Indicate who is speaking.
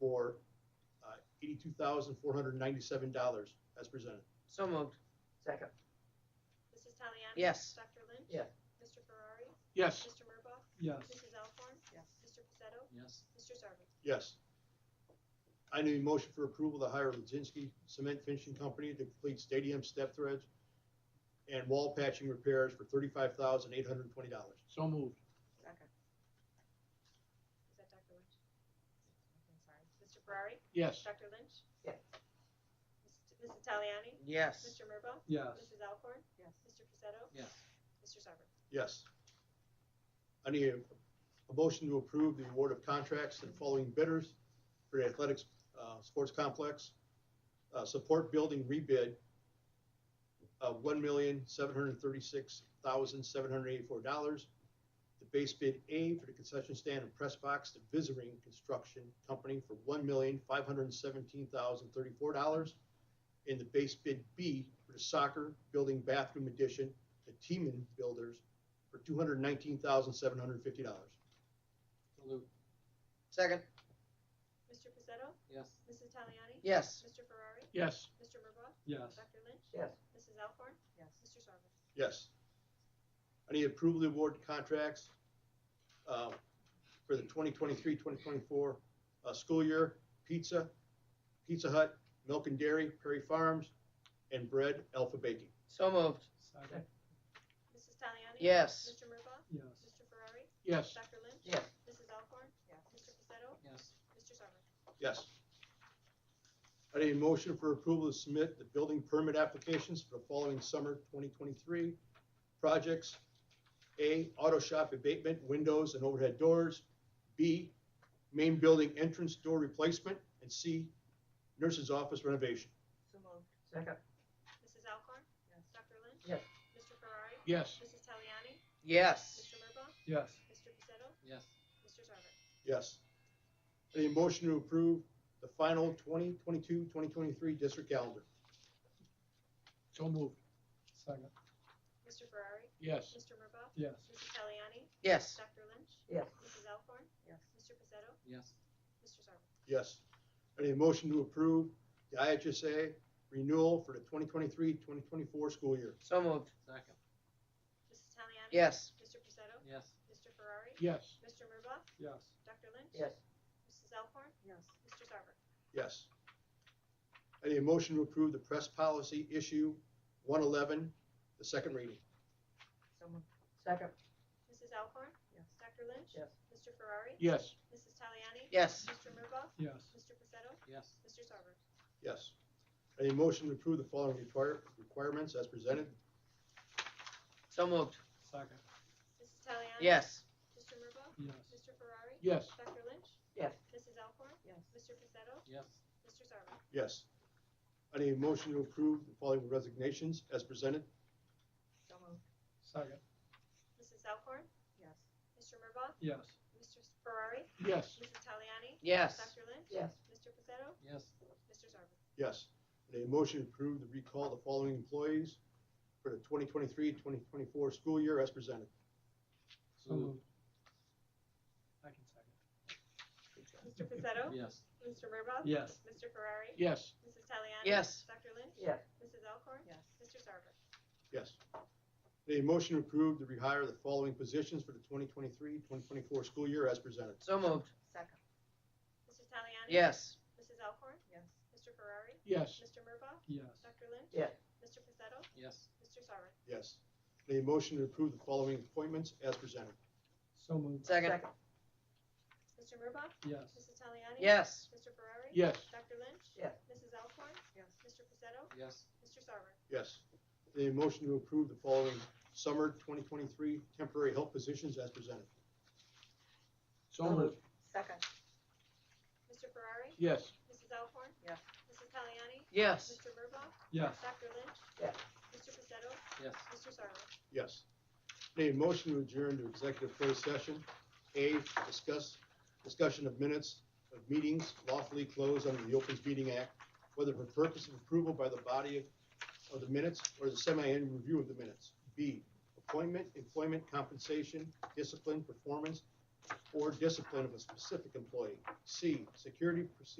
Speaker 1: uh, eighty-two thousand, four hundred and ninety-seven dollars as presented.
Speaker 2: So moved.
Speaker 3: second,
Speaker 4: Mrs. Taliani?
Speaker 2: Yes.
Speaker 4: Dr. Lynch?
Speaker 3: Yes.
Speaker 4: Mr. Ferrari?
Speaker 1: Yes.
Speaker 4: Mr. Murbaugh?
Speaker 5: yes,
Speaker 4: Mrs. Alcorn?
Speaker 6: yes,
Speaker 4: Mr. Pacetto?
Speaker 7: yes,
Speaker 4: Mr. Sarver?
Speaker 1: Yes. I need a motion for approval to hire Lazinski Cement Finishing Company to complete stadium step threads and wall patching repairs for thirty-five thousand, eight hundred and twenty dollars.
Speaker 7: so moved,
Speaker 6: second,
Speaker 4: Is that Dr. Lynch?
Speaker 6: I'm sorry,
Speaker 4: Mr. Ferrari?
Speaker 7: yes,
Speaker 4: Dr. Lynch?
Speaker 3: Yes.
Speaker 4: Mrs. T- Mrs. Taliani?
Speaker 2: Yes.
Speaker 4: Mr. Murbaugh?
Speaker 5: yes,
Speaker 4: Mrs. Alcorn?
Speaker 6: yes,
Speaker 4: Mr. Pacetto?
Speaker 7: yes,
Speaker 4: Mr. Sarver?
Speaker 1: Yes. I need a, a motion to approve the award of contracts to the following bidders for the athletics, uh, sports complex. Uh, support building rebid of one million, seven hundred and thirty-six thousand, seven hundred and eighty-four dollars. The base bid A for the concession stand and press box to Visiting Construction Company for one million, five hundred and seventeen thousand, thirty-four dollars. And the base bid B for the soccer building bathroom addition to Teeman Builders for two hundred nineteen thousand seven hundred fifty dollars.
Speaker 7: salute,
Speaker 2: Second.
Speaker 4: Mr. Pacetto?
Speaker 7: yes,
Speaker 4: Mrs. Taliani?
Speaker 2: Yes.
Speaker 4: Mr. Ferrari?
Speaker 1: Yes.
Speaker 4: Mr. Murbaugh?
Speaker 5: yes,
Speaker 4: Dr. Lynch?
Speaker 3: yes,
Speaker 4: Mrs. Alcorn?
Speaker 6: yes,
Speaker 4: Mr. Sarver?
Speaker 1: Yes. I need approval to award contracts uh, for the 2023-2024 uh, school year, pizza, Pizza Hut, Milk and Dairy, Prairie Farms, and Bread Alpha Baking.
Speaker 2: So moved.
Speaker 5: second,
Speaker 4: Mrs. Taliani?
Speaker 2: Yes.
Speaker 4: Mr. Murbaugh?
Speaker 5: yes,
Speaker 4: Mr. Ferrari?
Speaker 1: Yes.
Speaker 4: Dr. Lynch?
Speaker 3: yes,
Speaker 4: Mrs. Alcorn?
Speaker 6: yes,
Speaker 4: Mr. Pacetto?
Speaker 7: yes,
Speaker 4: Mr. Sarver?
Speaker 1: Yes. I need a motion for approval to submit the building permit applications for the following summer 2023 projects. A, auto shop abatement, windows and overhead doors. B, main building entrance door replacement. And C, nurse's office renovation.
Speaker 6: so moved,
Speaker 3: second,
Speaker 4: Mrs. Alcorn?
Speaker 6: yes,
Speaker 4: Dr. Lynch?
Speaker 3: Yes.
Speaker 4: Mr. Ferrari?
Speaker 1: Yes.
Speaker 4: Mrs. Taliani?
Speaker 2: Yes.
Speaker 4: Mr. Murbaugh?
Speaker 5: yes,
Speaker 4: Mr. Pacetto?
Speaker 7: yes,
Speaker 4: Mr. Sarver?
Speaker 1: Yes. I need a motion to approve the final 2022-2023 district calendar.
Speaker 7: so moved,
Speaker 5: second,
Speaker 4: Mr. Ferrari?
Speaker 7: yes,
Speaker 4: Mr. Murbaugh?
Speaker 5: yes,
Speaker 4: Mrs. Taliani?
Speaker 2: Yes.
Speaker 4: Dr. Lynch?
Speaker 3: yes,
Speaker 4: Mrs. Alcorn?
Speaker 6: yes,
Speaker 4: Mr. Pacetto?
Speaker 7: yes,
Speaker 4: Mr. Sarver?
Speaker 1: Yes. I need a motion to approve the IHSA renewal for the 2023-2024 school year.
Speaker 2: So moved.
Speaker 7: second,
Speaker 4: Mrs. Taliani?
Speaker 2: Yes.
Speaker 4: Mr. Pacetto?
Speaker 7: yes,
Speaker 4: Mr. Ferrari?
Speaker 1: Yes.
Speaker 4: Mr. Murbaugh?
Speaker 5: yes,
Speaker 4: Dr. Lynch?
Speaker 3: yes,
Speaker 4: Mrs. Alcorn?
Speaker 6: yes,
Speaker 4: Mr. Sarver?
Speaker 1: Yes. I need a motion to approve the press policy issue 111, the second reading.
Speaker 6: so moved,
Speaker 3: second,
Speaker 4: Mrs. Alcorn?
Speaker 6: yes,
Speaker 4: Dr. Lynch?
Speaker 3: yes,
Speaker 4: Mr. Ferrari?
Speaker 1: Yes.
Speaker 4: Mrs. Taliani?
Speaker 2: Yes.
Speaker 4: Mr. Murbaugh?
Speaker 5: yes,
Speaker 4: Mr. Pacetto?
Speaker 7: yes,
Speaker 4: Mr. Sarver?
Speaker 1: Yes. I need a motion to approve the following require- requirements as presented.
Speaker 2: So moved.
Speaker 5: second,
Speaker 4: Mrs. Taliani?
Speaker 2: Yes.
Speaker 4: Mr. Murbaugh?
Speaker 5: yes,
Speaker 4: Mr. Ferrari?
Speaker 1: Yes.
Speaker 4: Dr. Lynch?
Speaker 3: yes,
Speaker 4: Mrs. Alcorn?
Speaker 6: yes,
Speaker 4: Mr. Pacetto?
Speaker 7: yes,
Speaker 4: Mr. Sarver?
Speaker 1: Yes. I need a motion to approve the following resignations as presented.
Speaker 6: so moved,
Speaker 5: second,
Speaker 4: Mrs. Alcorn?
Speaker 6: yes,
Speaker 4: Mr. Murbaugh?
Speaker 5: yes,
Speaker 4: Mr. Ferrari?
Speaker 1: Yes.
Speaker 4: Mrs. Taliani?
Speaker 2: Yes.
Speaker 4: Dr. Lynch?
Speaker 3: yes,
Speaker 4: Mr. Pacetto?
Speaker 7: yes,
Speaker 4: Mr. Sarver?
Speaker 1: Yes. I need a motion to approve the recall of the following employees for the 2023-2024 school year as presented.
Speaker 5: so
Speaker 7: salute,
Speaker 5: moved. I can second,
Speaker 4: Mr. Pacetto?
Speaker 7: yes,
Speaker 4: Mr. Murbaugh?
Speaker 5: yes,
Speaker 4: Mr. Ferrari?
Speaker 1: Yes.
Speaker 4: Mrs. Taliani?
Speaker 2: Yes.
Speaker 4: Dr. Lynch?
Speaker 3: yes,
Speaker 4: Mrs. Alcorn?
Speaker 6: yes,
Speaker 4: Mr. Sarver?
Speaker 1: Yes. A motion to approve to rehire the following positions for the 2023-2024 school year as presented.
Speaker 2: So moved.
Speaker 6: second,
Speaker 4: Mrs. Taliani?
Speaker 2: Yes.
Speaker 4: Mrs. Alcorn?
Speaker 6: yes,
Speaker 4: Mr. Ferrari?
Speaker 1: Yes.
Speaker 4: Mr. Murbaugh?
Speaker 5: yes,
Speaker 4: Dr. Lynch?
Speaker 3: yes,
Speaker 4: Mr. Pacetto?
Speaker 7: yes,
Speaker 4: Mr. Sarver?
Speaker 1: Yes. A motion to approve the following appointments as presented.
Speaker 5: so moved,
Speaker 2: Second.
Speaker 3: second,
Speaker 4: Mr. Murbaugh?
Speaker 5: yes,
Speaker 4: Mrs. Taliani?
Speaker 2: Yes.
Speaker 4: Mr. Ferrari?
Speaker 1: Yes.
Speaker 4: Dr. Lynch?
Speaker 3: yes,
Speaker 4: Mrs. Alcorn?
Speaker 6: yes,
Speaker 4: Mr. Pacetto?
Speaker 7: yes,
Speaker 4: Mr. Sarver?
Speaker 1: Yes. A motion to approve the following summer 2023 temporary help positions as presented.
Speaker 7: so moved,
Speaker 6: second,
Speaker 4: Mr. Ferrari?
Speaker 1: Yes.
Speaker 4: Mrs. Alcorn?
Speaker 6: Yes.
Speaker 4: Mrs. Taliani?
Speaker 2: Yes.
Speaker 4: Mr. Murbaugh?
Speaker 5: yes,
Speaker 4: Dr. Lynch?
Speaker 3: Yes.
Speaker 4: Mr. Pacetto?
Speaker 7: yes,
Speaker 4: Mr. Sarver?
Speaker 1: Yes. A motion to adjourn to executive closed session. A, discuss, discussion of minutes of meetings lawfully closed under the Open Meeting Act, whether for purpose of approval by the body of, of the minutes or the semi-annual review of the minutes. B, appointment, employment, compensation, discipline, performance, or discipline of a specific employee. C, security procedure.